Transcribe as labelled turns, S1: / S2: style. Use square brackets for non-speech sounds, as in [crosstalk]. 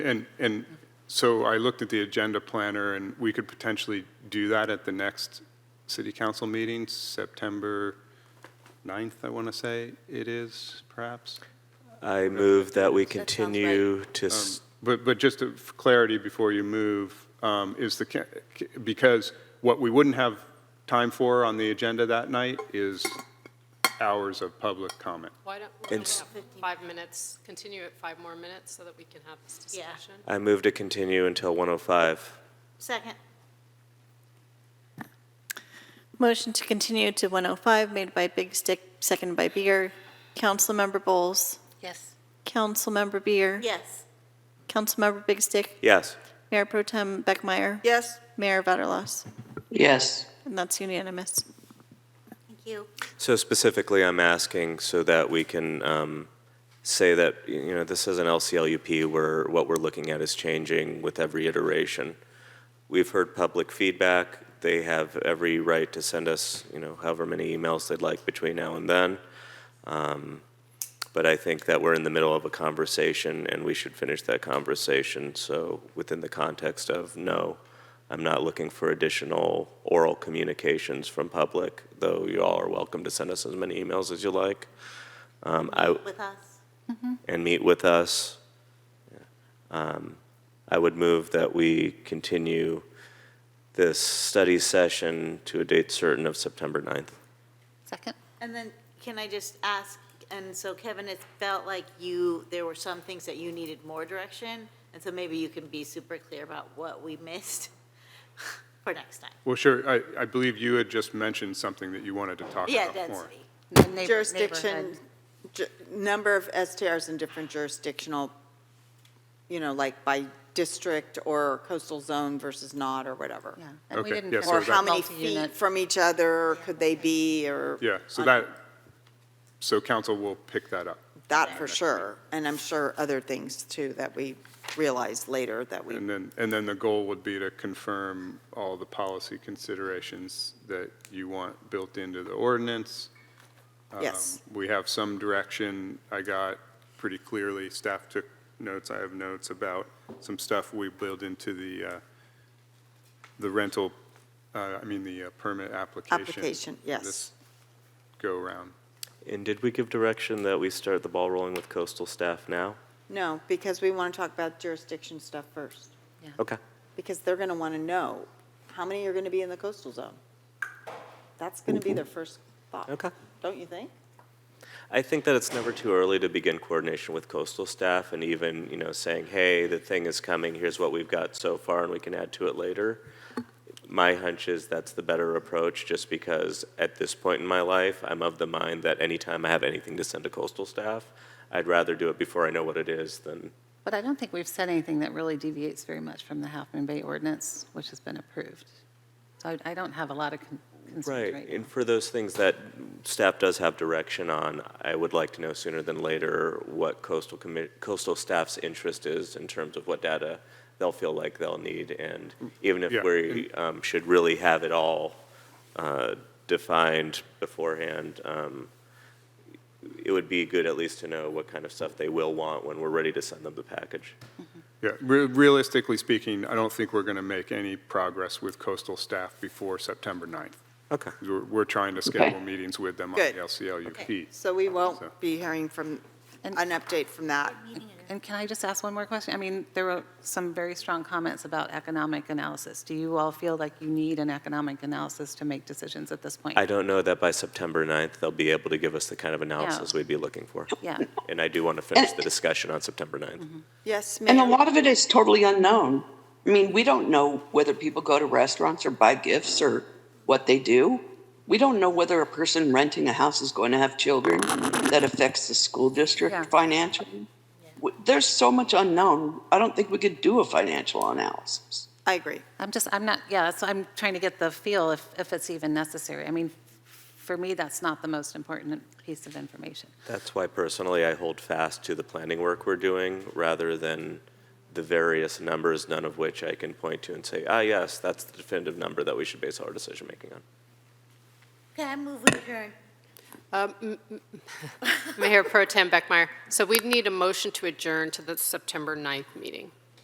S1: And, and so I looked at the agenda planner, and we could potentially do that at the next city council meeting, September 9th, I want to say it is, perhaps.
S2: I move that we
S3: sounds right.
S2: continue to, s-
S1: But, but just for clarity before you move, um, is the, ca- ca- because what we wouldn't have time for on the agenda that night is hours of public comment.
S4: Why don't we
S2: And
S4: have
S2: s-
S4: five minutes, continue it five more minutes so that we can have this
S3: Yeah.
S4: discussion?
S2: I move to continue until 105.
S3: Second.
S5: Motion to continue to 105 made by Big Stick, seconded by Beer. Councilmember Bowles.
S3: Yes.
S5: Councilmember Beer.
S3: Yes.
S5: Councilmember Big Stick.
S2: Yes.
S5: Mayor Pro Tem Beckmeyer.
S6: Yes.
S5: Mayor Vaterlos.
S6: Yes.
S5: And that's unanimous.
S3: Thank you.
S2: So specifically, I'm asking so that we can um, say that, y- you know, this is an LCLUP where what we're looking at is changing with every iteration. We've heard public feedback. They have every right to send us, you know, however many emails they'd like between now and then. Um, But I think that we're in the middle of a conversation, and we should finish that conversation. So within the context of, no, I'm not looking for additional oral communications from public, though you all are welcome to send us as many emails as you like. Um, I-
S3: With us.
S2: and meet with us. Um, I would move that we continue this study session to a date certain of September 9th.
S7: Second?
S3: And then, can I just ask, and so Kevin, it felt like you, there were some things that you needed more direction, and so maybe you can be super clear about what we missed [laughs] for next time.
S1: Well, sure, I, I believe you had just mentioned something that you wanted to talk
S3: Yeah,
S1: about more.
S3: density.
S7: The neighbor-
S6: Jurisdiction,
S7: neighborhood.
S6: ju- number of STRs in different jurisdictional, you know, like by district or coastal zone versus not or whatever.
S7: Yeah. And we
S1: Okay,
S7: didn't
S1: yeah, so
S6: Or
S7: finish
S1: that-
S6: how many feet
S7: multi-unit.
S6: from each other could they be or?
S1: Yeah, so that, so council will pick that up.
S6: That for sure. And I'm sure other things too that we realized later that we,
S1: And then, and then the goal would be to confirm all the policy considerations that you want built into the ordinance. Um,
S6: yes.
S1: We have some direction. I got pretty clearly, staff took notes, I have notes about some stuff we build into the, uh, the rental, uh, I mean, the uh, permit application.
S6: Application, yes.
S1: This go-around.
S2: And did we give direction that we start the ball rolling with coastal staff now?
S6: No, because we want to talk about jurisdiction stuff first.
S2: Okay.
S6: Because they're going to want to know how many are going to be in the coastal zone. That's going to be their first thought.
S2: Okay.
S6: Don't you think?
S2: I think that it's never too early to begin coordination with coastal staff and even, you know, saying, hey, the thing is coming, here's what we've got so far, and we can add to it later. My hunch is that's the better approach, just because at this point in my life, I'm of the mind that anytime I have anything to send to coastal staff, I'd rather do it before I know what it is than,
S7: But I don't think we've said anything that really deviates very much from the Half Moon Bay ordinance, which has been approved. So I I don't have a lot of con- concerns
S2: right.
S7: right now.
S2: And for those things that staff does have direction on, I would like to know sooner than later what coastal commi, coastal staff's interest is in terms of what data they'll feel like they'll need, and even if
S1: Yeah,
S2: we um, should really have it all uh, defined beforehand, um, it would be good at least to know what kind of stuff they will want when we're ready to send them the package.
S1: Yeah, re- realistically speaking, I don't think we're going to make any progress with coastal staff before September 9th.
S2: Okay.
S1: We're, we're trying to schedule meetings with them on the
S6: Good.
S1: LCLUP.
S6: So we won't
S1: So-
S6: be hearing from, an
S7: And-
S6: update from that.
S7: And can I just ask one more question? I mean, there were some very strong comments about economic analysis. Do you all feel like you need an economic analysis to make decisions at this point?
S2: I don't know that by September 9th, they'll be able to give us the kind of analysis we'd be looking for.
S7: Yeah.
S2: And I do want to finish the discussion on September 9th.
S6: Yes,
S8: And a
S6: ma'am.
S8: lot of it is totally unknown. I mean, we don't know whether people go to restaurants or buy gifts or what they do. We don't know whether a person renting a house is going to have children. That affects the school
S7: Yeah.
S8: district financially. W- There's so much unknown. I don't think we could do a financial analysis.
S6: I agree.
S7: I'm just, I'm not, yeah, so I'm trying to get the feel if, if it's even necessary. I mean, for me, that's not the most important piece of information.
S2: That's why personally I hold fast to the planning work we're doing rather than the various numbers, none of which I can point to and say, ah, yes, that's the definitive number that we should base our decision making on.
S3: Okay, I move with her.
S4: Mayor Pro Tem Beckmeyer, so we'd need a motion to adjourn to the September 9th meeting.